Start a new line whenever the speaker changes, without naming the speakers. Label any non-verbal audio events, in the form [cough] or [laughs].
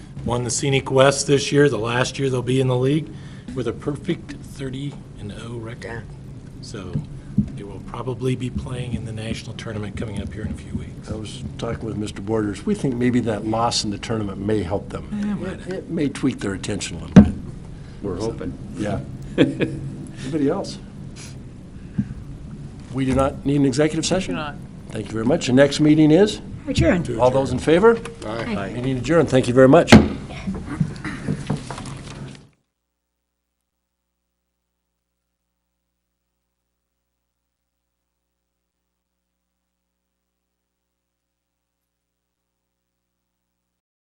won the Scenic West this year, the last year they'll be in the league, with a perfect 30 and 0 record. So they will probably be playing in the national tournament coming up here in a few weeks.
I was talking with Mr. Borders, we think maybe that loss in the tournament may help them. It may tweak their attention a little bit.
We're hoping. [laughs]
Yeah. Anybody else? We do not need an executive session? Thank you very much. The next meeting is?
Adjourn.
All those in favor?
Aye.
Meeting adjourned. Thank you very much.